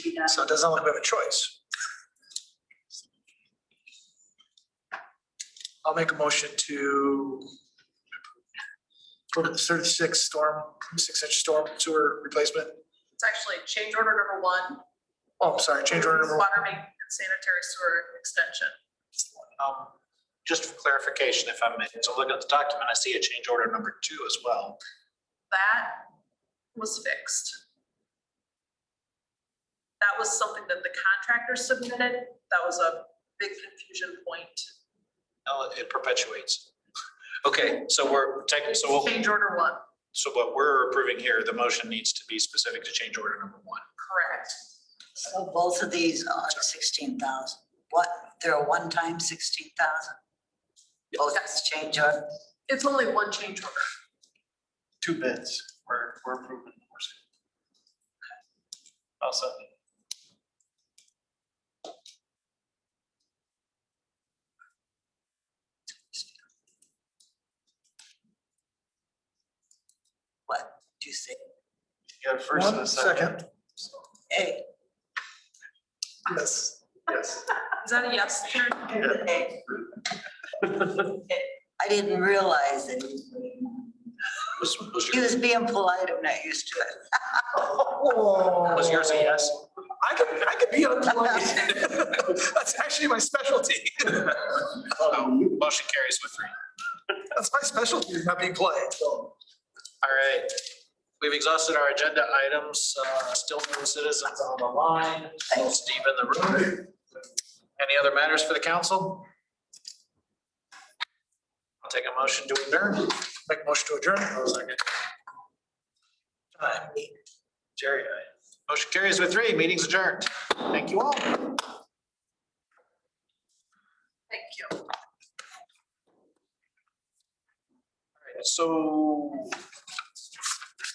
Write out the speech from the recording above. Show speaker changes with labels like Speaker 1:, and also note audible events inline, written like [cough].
Speaker 1: yeah.
Speaker 2: So it doesn't look like we have a choice. I'll make a motion to approve the thirty-six storm, six-inch storm sewer replacement.
Speaker 1: It's actually change order number one.
Speaker 2: Oh, sorry, change order number one.
Speaker 1: Water main and sanitary sewer extension.
Speaker 3: Um, Just for clarification, if I may, so look at the document, I see a change order number two as well.
Speaker 1: That was fixed. That was something that the contractor submitted. That was a big confusion point.
Speaker 3: Now It perpetuates. Okay, so we're taking, so what,
Speaker 1: Change order one,
Speaker 3: so what we're approving here, the motion needs to be specific to change order number one.
Speaker 1: correct.
Speaker 4: So both of these are sixteen thousand. What, they're a one-time sixteen thousand? Both has change order.
Speaker 1: It's only one change order.
Speaker 5: two bids, we're, we're approving. the horse. Also,
Speaker 4: What do you say?
Speaker 5: you got a first and a
Speaker 2: One
Speaker 5: second.
Speaker 4: Hey,
Speaker 2: Yes, yes.
Speaker 1: Is that a yes, Karen?
Speaker 4: hey. I didn't realize it.
Speaker 3: Was, was
Speaker 4: He
Speaker 3: your-
Speaker 4: was being polite. I'm not used to it.
Speaker 3: was yours a yes?
Speaker 2: I could, I could be unplugged. [laughs] That's actually my specialty.
Speaker 3: So, Motion carries with three.
Speaker 2: That's my specialty, is not being polite. so.
Speaker 3: All right, we've exhausted our agenda items, uh, still no citizens on the line, no Steve in the room. Any other matters for the council? I'll take a motion to adjourn.
Speaker 2: Make a motion to adjourn.
Speaker 3: Aye. Jerry, aye. motion carries with three, meeting's adjourned. Thank you all.
Speaker 1: Thank you.
Speaker 3: So